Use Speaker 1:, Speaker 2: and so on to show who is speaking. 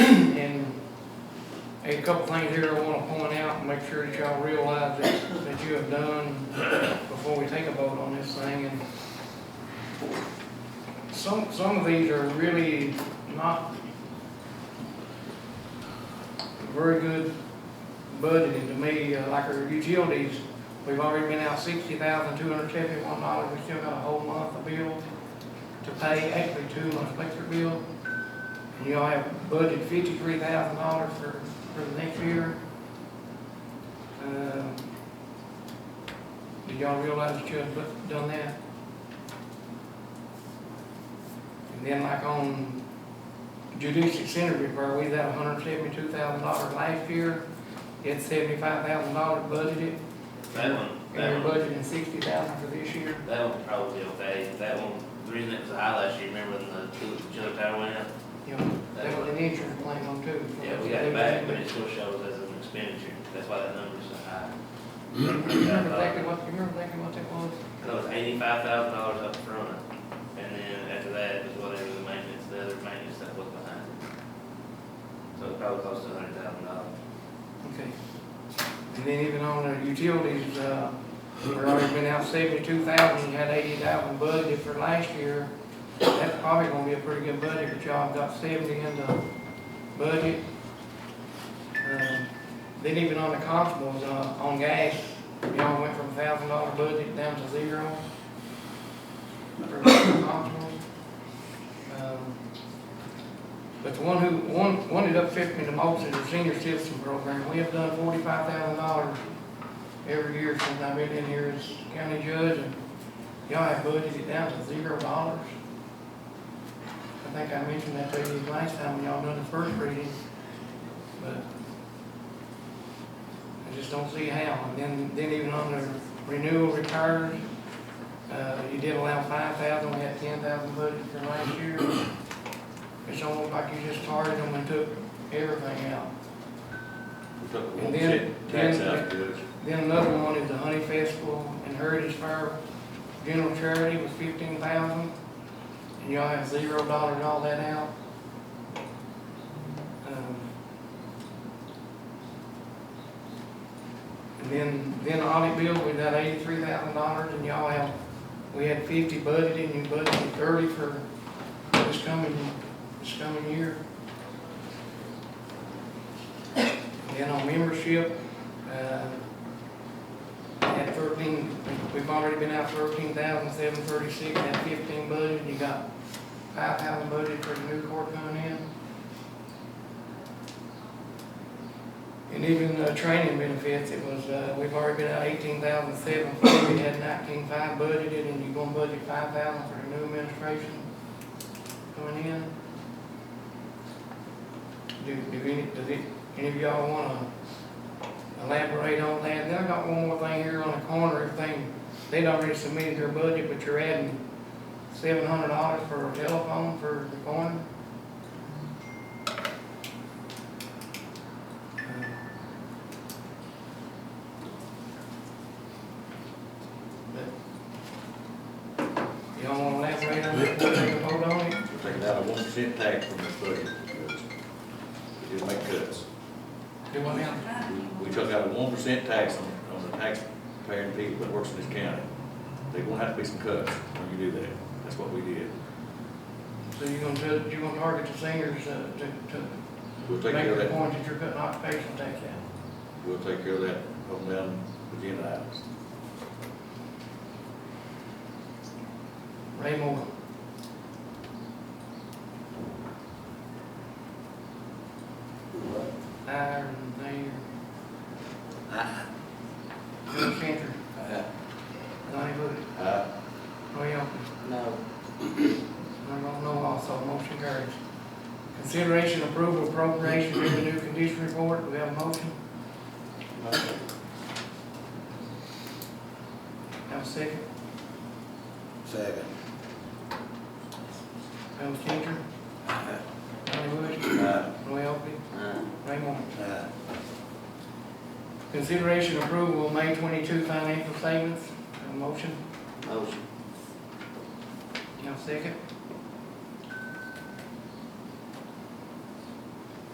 Speaker 1: There's a couple things here I wanna point out and make sure that y'all realize that, that you have done before we take a vote on this thing and some, some of these are really not very good budgeting to me, uh, like our utilities. We've already been out sixty thousand two hundred seventy-one dollars, we still got a whole month of bill to pay, actually two months electric bill. And y'all have budgeted fifty-three thousand dollars for, for the next year. Uh, Did y'all realize that you had bu- done that? And then like on judicial center repair, we had hundred seventy-two thousand dollars last year. It's seventy-five thousand dollars budgeted,
Speaker 2: That one, that
Speaker 1: and we're
Speaker 2: one,
Speaker 1: budgeting sixty thousand for this year.
Speaker 2: that one probably okay, that one, the reason it was high last year, remember when the two- chiller tower went out?
Speaker 1: You know, that was an insurance claim on too.
Speaker 2: Yeah, we got it back, but it still shows as an expenditure, that's why that number's so high.
Speaker 1: Remember exactly what, you remember exactly what that was?
Speaker 2: That was eighty-five thousand dollars up front, and then after that was whatever the maintenance, the other maintenance that was behind it. So it probably cost a hundred thousand dollars.
Speaker 1: Okay. And then even on the utilities, uh, we've already been out seventy-two thousand, you had eighty thousand budget for last year. That's probably gonna be a pretty good budget, but y'all got seventy in the budget. Um, Then even on the constables, uh, on gas, y'all went from thousand dollar budget down to zero. For constables. Um, but the one who, one, one that upset me the most is the senior citizen program. We have done forty-five thousand dollars every year since I've been in here as county judge, and y'all have budgeted it down to zero dollars. I think I mentioned that to you last time when y'all done the first reading, but I just don't see how. And then, then even on the renewal retires, uh, you did allow five thousand, we had ten thousand budgeted for last year. It's almost like you just tarred them and took everything out.
Speaker 3: We took
Speaker 1: And
Speaker 3: one
Speaker 1: then-
Speaker 3: percent tax
Speaker 1: then-
Speaker 3: out of this.
Speaker 1: Then another one is the Honey Festival and Heritage Fair General Charity was fifteen thousand. And y'all have zero dollars all that out. Um, And then, then audit bill, we got eighty-three thousand dollars and y'all have, we had fifty budgeted and you budgeted thirty for this coming, this coming year. And then on membership, uh, at thirteen, we've already been out thirteen thousand seven thirty-six, at fifteen budget, you got five thousand budget for the new court coming in. And even, uh, training benefits, it was, uh, we've already been out eighteen thousand seven forty, we had nineteen five budgeted, and you're gonna budget five thousand for the new administration coming in. Do, do any, does it, any of y'all wanna elaborate on that. Then I got one more thing here on the corner, everything, they'd already submitted their budget, but you're adding seven hundred dollars for a telephone for the corner. Uh, But, Y'all wanna elaborate on that, take a vote on it?
Speaker 3: We're taking out a one percent tax from this budget. We did make cuts.
Speaker 1: Do what now?
Speaker 3: We- We took out a one percent tax on, on the taxpaying people that works in this county. They gonna have to be some cuts when you do that. That's what we did.
Speaker 1: So you're gonna, tell- you're gonna target the seniors uh, to, to
Speaker 3: We'll take
Speaker 1: make
Speaker 3: care of
Speaker 1: the
Speaker 3: that,
Speaker 1: point that you're cutting occupational tax out?
Speaker 3: we'll take care of that on down agenda items.
Speaker 1: Ray Moore. Iron Mayor. Bill Cantor. Donnie Bush.
Speaker 3: Aye.
Speaker 1: Roy Elphie. No. I don't know also, motion carries. Consideration approval appropriation revenue condition report, do we have a motion? Have a second?
Speaker 4: Second.
Speaker 1: Bill Cantor. Donnie Bush.
Speaker 4: Aye.
Speaker 1: Roy Elphie. Ray Moore.
Speaker 4: Aye.
Speaker 1: Consideration approval of May twenty-two financial statements, Have a motion,
Speaker 2: Motion.
Speaker 1: you have a second?